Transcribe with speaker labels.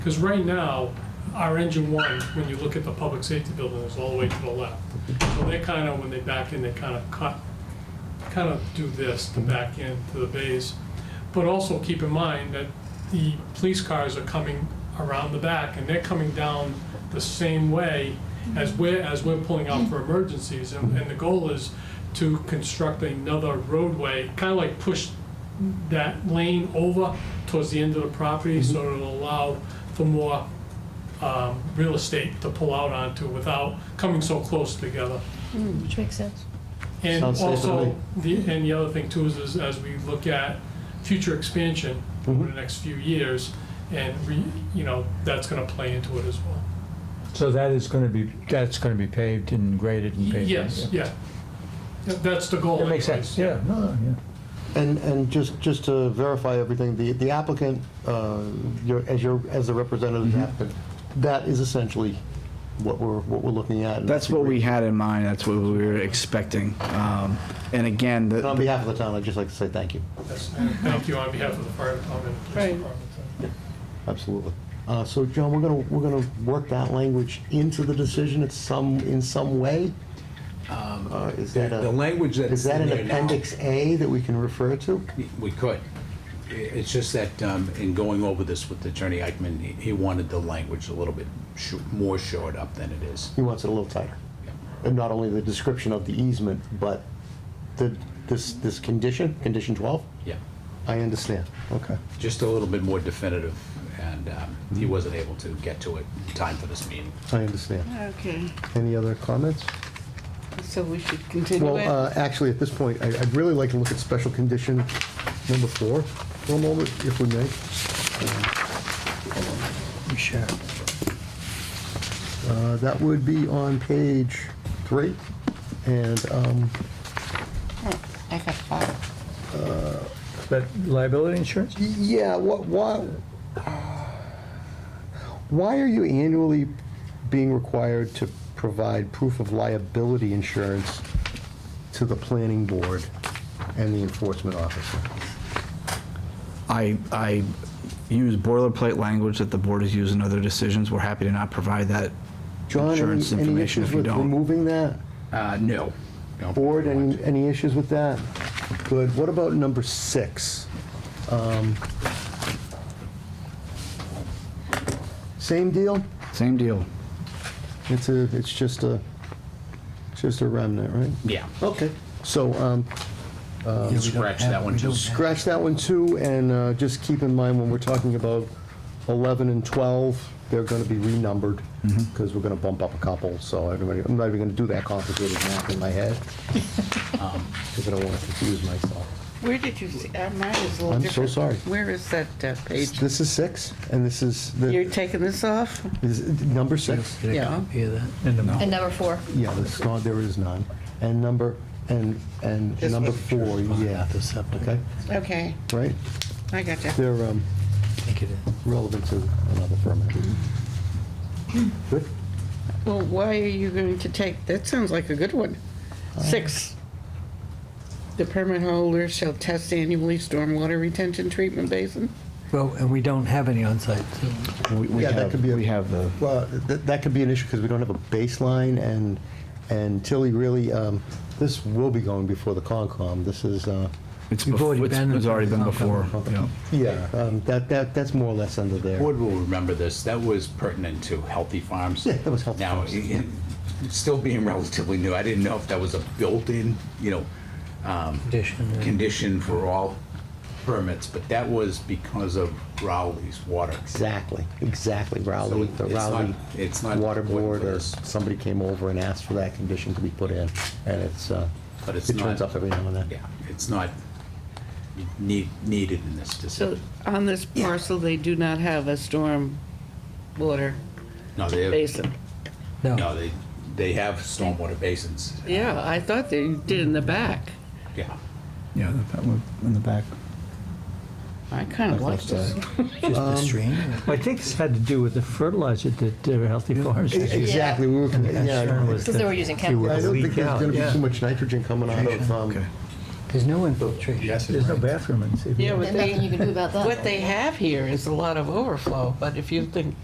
Speaker 1: Because right now, our engine one, when you look at the public safety building, is all the way to the left. So they kind of, when they back in, they kind of cut, kind of do this to back in to the bays. But also keep in mind that the police cars are coming around the back and they're coming down the same way as we're, as we're pulling out for emergencies. And, and the goal is to construct another roadway, kind of like push that lane over towards the end of the property so
Speaker 2: Mm-hmm.
Speaker 1: it'll allow for more um, real estate to pull out onto without coming so close together.
Speaker 3: Mm, Which makes sense.
Speaker 1: And
Speaker 4: Sounds safe to me.
Speaker 1: also, the, and the other thing too is, is as we look at future expansion over
Speaker 2: Mm-hmm.
Speaker 1: the next few years, and re, you know, that's gonna play into it as well.
Speaker 2: So that is going to be, that's going to be paved and graded and paved?
Speaker 1: Yes,
Speaker 2: yeah.
Speaker 1: yeah. Yeah, That's the goal.
Speaker 2: That makes
Speaker 1: anyways.
Speaker 2: sense, yeah, no, no, yeah.
Speaker 4: And, and just, just to verify everything, the the applicant, uh, your- as your, as the representative
Speaker 5: Mm-hmm.
Speaker 4: of the applicant, that is essentially what we're, what we're looking at.
Speaker 5: That's what we had in mind, that's what we were expecting. Um, And again,
Speaker 4: And on
Speaker 5: the-
Speaker 4: behalf of the town, I'd just like to say thank you.
Speaker 1: Yes, and Thank you on behalf of the fire department and police
Speaker 3: Right.
Speaker 1: department.
Speaker 4: Absolutely. Uh, So, John, we're going to, we're going to work that language into the decision at some, in some way? Uh, Is that
Speaker 6: Um, The
Speaker 4: a,
Speaker 6: language that's.
Speaker 4: is that
Speaker 6: in
Speaker 4: an
Speaker 6: there now-
Speaker 4: appendix A that we can refer to?
Speaker 6: We could. I- It's just that um, in going over this with Attorney Eichman, he- he wanted the language a little bit sh- more shored up than it is.
Speaker 4: He wants it a little tighter.
Speaker 6: Yeah.
Speaker 4: And not only the description of the easement, but the, this, this condition, condition 12?
Speaker 6: Yeah,
Speaker 4: I understand. Okay.
Speaker 6: just a little bit more definitive, and um, he wasn't able to get to it in time for this meeting.
Speaker 4: I understand.
Speaker 7: Okay,
Speaker 4: Any other comments?
Speaker 7: so we should continue
Speaker 4: Well,
Speaker 7: it?
Speaker 4: uh, actually, at this point, I- I'd really like to look at special condition number four for a moment, if we may.
Speaker 2: We share.
Speaker 4: Uh, That would be on page three, and um,
Speaker 7: I got five.
Speaker 2: But liability insurance?
Speaker 4: Yeah, what, why, why are you annually being required to provide proof of liability insurance to the planning board and the enforcement officer?
Speaker 5: I, I use boilerplate language that the board has used in other decisions. We're happy to not provide that
Speaker 4: John, any,
Speaker 5: insurance
Speaker 4: any
Speaker 5: information
Speaker 4: issues
Speaker 5: if you
Speaker 4: with
Speaker 5: don't.
Speaker 4: removing that?
Speaker 6: Uh, No. No.
Speaker 4: Board, any, any issues with that? Good, what about number six? Um, Same deal?
Speaker 5: Same deal.
Speaker 4: It's a, it's just a, it's just a remnant, right?
Speaker 6: Yeah,
Speaker 4: Okay, so um,
Speaker 6: scratch that one too.
Speaker 4: scratch that one too, and uh, just keep in mind when we're talking about 11 and 12, they're going to be renumbered, because we're going to bump up a couple, so everybody, I'm not even going to do that complicated math in my head, because I don't want to confuse myself.
Speaker 7: Where did you see, uh, mine is a little
Speaker 4: I'm so
Speaker 7: different.
Speaker 4: sorry.
Speaker 7: Where is that uh, page?
Speaker 4: This is six, and this is,
Speaker 7: You're
Speaker 4: the
Speaker 7: taking this off?
Speaker 4: is it number six?
Speaker 7: Yeah.
Speaker 3: And number four.
Speaker 4: Yeah, there's not, there is none. And number, and, and
Speaker 7: This
Speaker 4: number
Speaker 7: one.
Speaker 4: four, yeah. Okay,
Speaker 7: Okay,
Speaker 4: right?
Speaker 7: I got you.
Speaker 4: They're um, relevant to another permit. Good?
Speaker 7: Well, why are you going to take, that sounds like a good one.
Speaker 4: Uh,
Speaker 7: Six. The permit holder shall test annually stormwater retention treatment basin?
Speaker 8: Well, and we don't have any on site. so-
Speaker 5: We- we
Speaker 4: Yeah, that
Speaker 5: have-
Speaker 4: could be a-
Speaker 5: We have the,
Speaker 4: Well, that, that could be an issue because we don't have a baseline and, and Tilly really, um, this will be going before the Concom. This is, uh,
Speaker 5: it's,
Speaker 8: You've already
Speaker 5: befo- it's
Speaker 8: been-
Speaker 5: it's already been before. yeah.
Speaker 4: yeah, um, that, that, that's more or less under there.
Speaker 6: Board will remember this, that was pertinent to Healthy Farms.
Speaker 4: Yeah, that was Healthy
Speaker 6: Now,
Speaker 4: Farms.
Speaker 6: it- it's still being relatively new, I didn't know if that was a built-in, you know, um,
Speaker 8: Condition, yeah.
Speaker 6: Condition for all permits, but that was because of Rowley's water.
Speaker 4: Exactly, exactly. Rowley, the
Speaker 6: So it's not-
Speaker 4: Rowley
Speaker 6: it's not
Speaker 4: Water
Speaker 6: important
Speaker 4: Board
Speaker 6: for
Speaker 4: or
Speaker 6: this.
Speaker 4: somebody came over and asked for that condition to be put in. And it's, uh,
Speaker 6: But
Speaker 4: it
Speaker 6: it's
Speaker 4: turns
Speaker 6: not-
Speaker 4: up every now and then.
Speaker 6: Yeah, it's not need, needed in this
Speaker 7: So
Speaker 6: decision.
Speaker 7: on this parcel, they do not have a storm water
Speaker 6: No, they,
Speaker 7: basin?
Speaker 6: no, they, they have stormwater basins.
Speaker 7: Yeah, I thought they did in the back.
Speaker 6: Yeah.
Speaker 5: Yeah, that one in the back.
Speaker 7: I kind of like this.
Speaker 8: Just the stream.
Speaker 2: I think this had to do with the fertilizer that uh, Healthy Farms
Speaker 4: E-
Speaker 2: is
Speaker 4: Exactly, we were,
Speaker 2: concerned
Speaker 4: yeah.
Speaker 2: with.
Speaker 3: Because they were using
Speaker 2: it would
Speaker 4: I
Speaker 3: chemicals.
Speaker 4: don't think
Speaker 2: leak
Speaker 4: there's
Speaker 2: out,
Speaker 4: gonna be
Speaker 2: yeah.
Speaker 4: too much nitrogen coming out of, um,
Speaker 5: Okay.
Speaker 8: There's no infiltration.
Speaker 6: Yes,
Speaker 2: There's no bathroom in CBA.
Speaker 7: Yeah, but
Speaker 3: There's nothing you
Speaker 7: they,
Speaker 3: can do about that.
Speaker 7: what they have here is a lot of overflow, but if you think